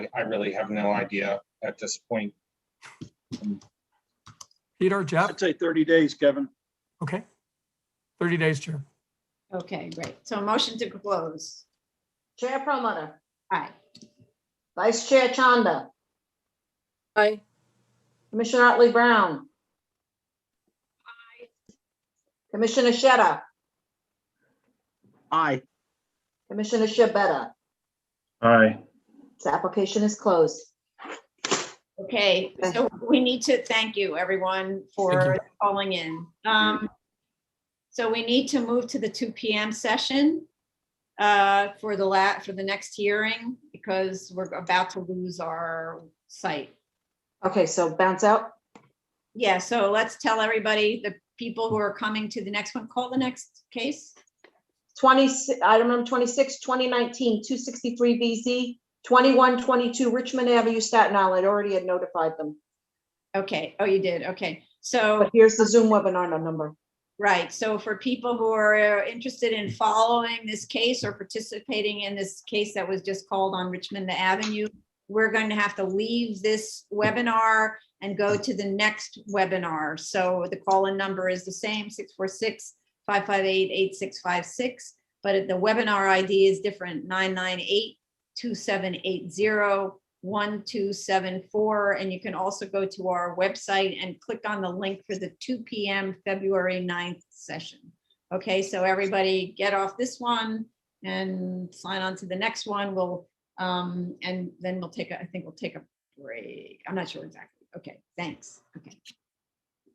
I really have no idea at this point. Peter, Jeff, I'd say 30 days, Kevin. okay. 30 days, Chair. Okay, great. So a motion to close. Chair Promoter, Aye. Vice Chair Chanda, Aye. Commissioner Otley Brown. Commissioner Sheta, Aye. Commissioner Shabeta. Aye. This application is closed. Okay, so we need to thank you, everyone, for calling in. Um, So we need to move to the two PM session uh, for the la, for the next hearing because we're about to lose our site. Okay, so bounce out. Yeah, so let's tell everybody, the people who are coming to the next one, call the next case. 20, item number 26, 2019, 263 BZ, 2122 Richmond Avenue, Staten Island. I Already had notified them. Okay, oh, you did, okay. So But here's the Zoom webinar number. Right, so for people who are interested in following this case or participating in this case that was just called on Richmond Avenue, we're going to have to leave this webinar and go to the next webinar. So the call-in number is the same, 646-558-8656, but the webinar ID is different, 998-2780-1274. And you can also go to our website and click on the link for the 2 PM February 9th session. Okay, so everybody get off this one and sign on to the next one. We'll, um, and then we'll take, a I think we'll take a break. I'm not sure exactly. Okay, thanks. Okay.